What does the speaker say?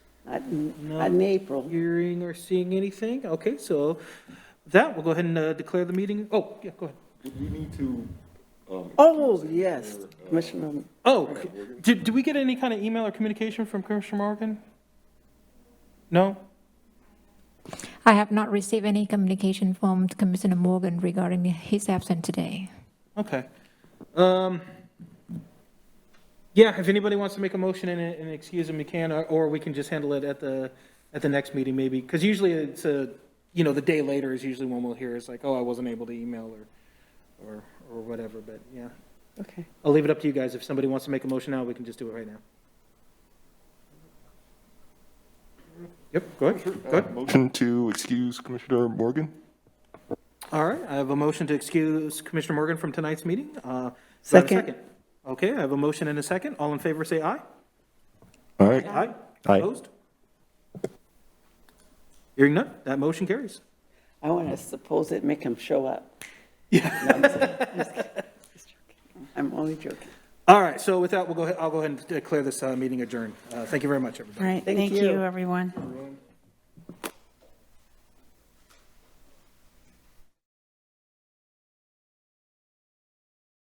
in April. Hearing or seeing anything? Okay, so with that, we'll go ahead and uh, declare the meeting. Oh, yeah, go ahead. Do we need to? um, Oh, yes, Commissioner, Oh, did, did we get any kind of email or communication from Commissioner Morgan? No? I have not received any communication from Commissioner Morgan regarding his absence today. Okay. Um, yeah, if anybody wants to make a motion and, and excuse them, you can, or, or we can just handle it at the, at the next meeting maybe. Because usually it's a, you know, the day later is usually when we'll hear it's like, oh, I wasn't able to email or, or, or whatever, but yeah. okay. I'll leave it up to you guys. If somebody wants to make a motion now, we can just do it right now. Yep, go ahead, go ahead. Motion to excuse Commissioner Morgan? All right, I have a motion to excuse Commissioner Morgan from tonight's meeting. Uh, do I have a Second. Okay, I have a motion and a second. All in favor, say aye. All right. Aye. Aye. Opposed? Hearing none, that motion carries. I want to suppose it make him show up. Yeah. I'm only joking. All right, so with that, we'll go ahead, I'll go ahead and declare this uh, meeting adjourned. Uh, Thank you very much, everybody. All right, Thank thank you. you, everyone.